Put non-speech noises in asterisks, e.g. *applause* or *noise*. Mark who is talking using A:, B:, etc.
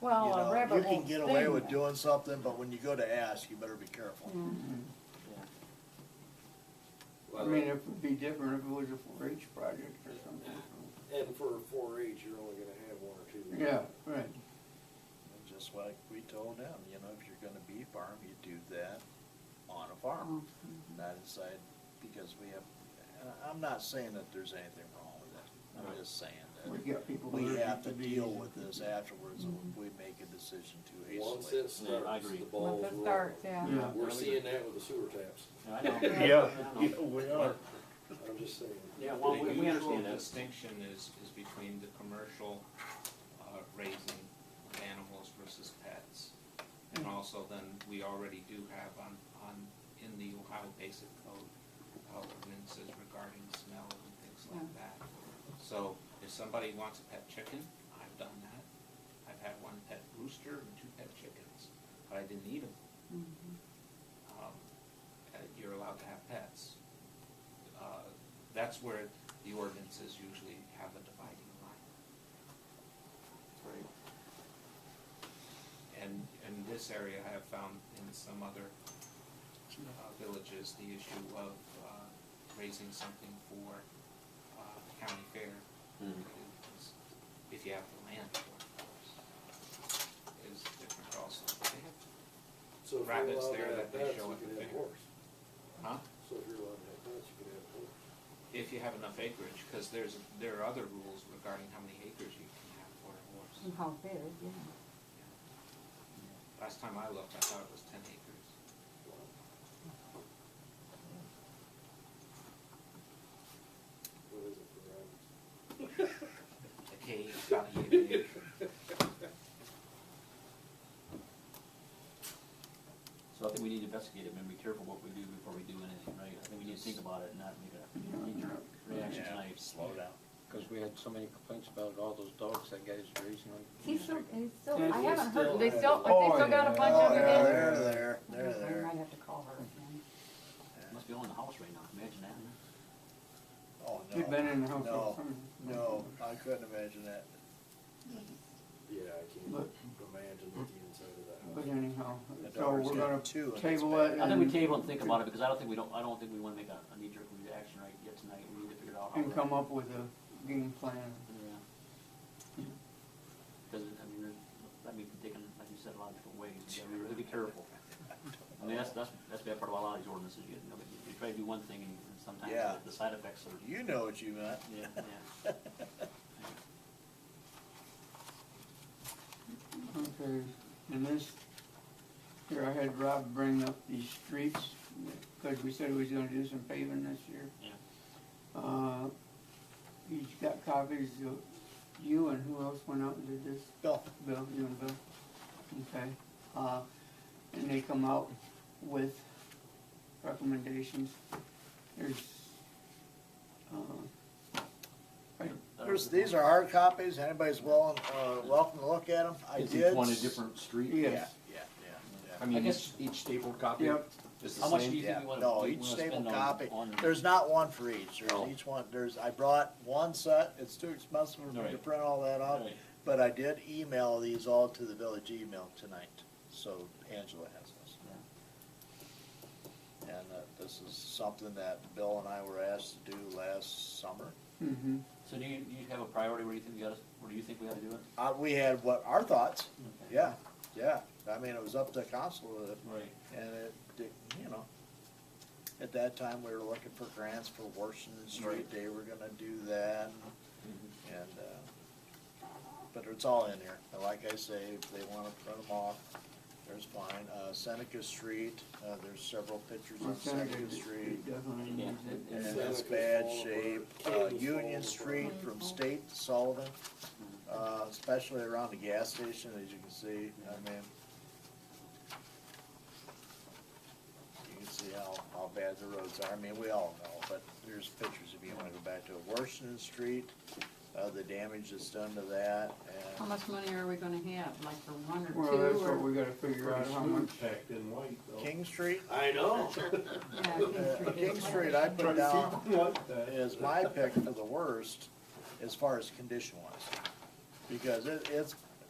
A: Well,
B: Oh,
C: You
A: a
C: know,
A: rabbit
C: You
A: won't
C: can get away
A: sting
C: with
A: you.
C: doing something, but when you go to ask, you better be careful.
B: I mean, it would be different if it was a four H project or something.
D: And for four H, you're only gonna have one or two.
B: Yeah, right.
C: And Just like we told them, you know, if you're gonna beef farm, you do that on a farm,
B: Mm-hmm.
C: not inside, because we have, and I- I'm not saying that there's anything wrong with it. I'm just saying
B: We
C: that
B: got people.
C: we
B: allergic
C: have to
B: bees.
C: deal with this afterwards, and we make a decision too
D: Once
C: hastily.
D: it starts, the ball's
A: Once it starts,
D: rolling.
A: yeah.
B: Yeah.
D: We're seeing that with the sewer taps, *laughs*
E: I know.
C: Yeah,
E: I know.
C: yeah, we are.
D: I'm just saying.
E: Yeah, well, we, we understand
F: The usual
E: that.
F: distinction is, is between the commercial uh, raising of animals versus pets. And also then, we already do have on, on, in the Ohio Basic Code, uh, ordinances regarding smell and things like that. So if somebody wants a pet chicken, I've done that. I've had one pet rooster and two pet chickens, but I didn't eat them. You're allowed to have pets. Uh, That's where the ordinances usually have a dividing line. And, and this area I have found in some other uh, villages, the issue of uh, raising something for uh, county fair. is- If you have the land for it, of course, is different also. They have
D: So if you're
F: Rabbits
D: allowed to
F: there
D: have
F: that they
D: pets,
F: show
D: you
F: at
D: can
F: the
D: have
F: fair.
D: horse.
F: Huh?
D: So if you're allowed to have pets, you can have horse.
F: If you have enough acreage, because there's, there are other rules regarding how many acres you can have for a horse.
A: How big, yeah.
F: Last time I looked, I thought it was ten acres.
D: What is it for rabbits?
F: *laughs* A cage, about an acre.
E: So I think we need to investigate it and be careful what we do before we do anything, right? I think we need to think about it and not make a knee-jerk reaction
C: Yeah,
E: tonight.
C: Slow down.
G: Because we had so many complaints about all those dogs that guy's raising on.
A: He's still, he's still,
B: Yeah,
A: I
B: he's
A: haven't heard, they still,
B: still-
A: but they
B: Oh,
A: still got a
B: yeah.
A: bunch
C: Oh,
A: of
C: yeah,
A: them in.
C: they're there, they're
A: I
B: Oh,
C: there.
A: might have to call her again.
E: Must be all in the house right now, imagine that. huh?
C: Oh, no.
B: You've been in the house.
C: No, no, I couldn't imagine that.
D: Yeah, I can't
B: Look.
D: imagine what the inside of that
B: But
D: house.
B: anyhow,
C: The
B: so
C: daughter's
B: we're
C: got
B: gonna
C: two, and it's
B: table
C: bad.
B: it.
E: I think we
B: and-
E: table and think about it, because I don't think we don't, I don't think we wanna make a, a knee-jerk reaction right yet tonight, we need to figure out. how
B: And
E: we're-
B: come up with a game plan.
E: Yeah. Cause, it- I mean, there's, that may be taken, like you said, a lot of different ways, you gotta really be careful. I mean, that's, that's, that's the bad part about a lot of these ordinances, you know, you try to do one thing and sometimes
C: Yeah.
E: the, the side effects are,
C: You know what you meant.
E: yeah, yeah.
B: Okay, and this, here I had Rob bring up these streets, because we said we was gonna do some paving this year. Yeah. Uh, he's got copies of you and who else went out and did this?
C: Bill,
B: Bill, you and Bill? Okay, uh, and they come out with recommendations. There's, uh, right,
C: *laughs* there's, these are hard copies, anybody's willing, uh, welcome to look at them, I
H: Is
C: did.
H: each one a different street?
C: Yeah,
B: yes,
C: yeah,
H: I
C: yeah,
E: I
H: mean, each,
E: guess-
H: each stapled copy
B: Yep.
H: is the
E: How much
H: same?
E: do you think
C: yeah.
E: we wanna,
C: No,
E: we
C: each
E: wanna
C: staple
E: spend on-
C: copy,
E: on-
C: there's not one for each,
H: Oh.
C: there's each one, there's, I brought one set, it's too expensive for me to
E: Right.
C: print all that out.
E: Right.
C: But I did email these all to the village email tonight, so Angela has this. And, uh, this is something that Bill and I were asked to do last summer.
B: mm-hmm,
E: So do you, do you have a priority where you think we gotta, where do you think we ought to do it?
C: Uh, we had what, our thoughts, yeah, yeah, I mean, it was up to council, uh,
E: Right.
C: And it, it- you know, at that time, we were looking for grants for Washington Street Day, we're gonna do that, and, uh, but it's all in here, and like I say, if they wanna print them off, there's fine, uh, Seneca Street, uh, there's several pictures
B: Well,
C: of Seneca
B: Seneca
C: Street,
B: definitely
E: Yeah,
B: needs it.
C: and
E: it-
C: it's
D: Seneca's
C: bad
D: falling apart.
C: shape, uh,
D: Cable's falling
C: Union
D: apart.
C: Street from State to Sullivan, uh, especially around the gas station, as you can see, I mean, you can see how, how bad the roads are, I mean, we all know, but there's pictures if you wanna go back to Washington Street, uh, the damage that's done to that,
A: How
C: and,
A: much money are we gonna have, like for one or
B: Well, that's
A: two
B: what
A: or?
B: we gotta figure out, how much,
I: packed in white though.
C: King Street,
D: I know.
A: Yeah,
C: uh,
A: King
C: King
A: is-
C: Street I
I: Try
C: put
D: *laughs*
I: to
C: down
I: keep it like that.
C: is my pick for the worst, as far as condition wise, because it, it's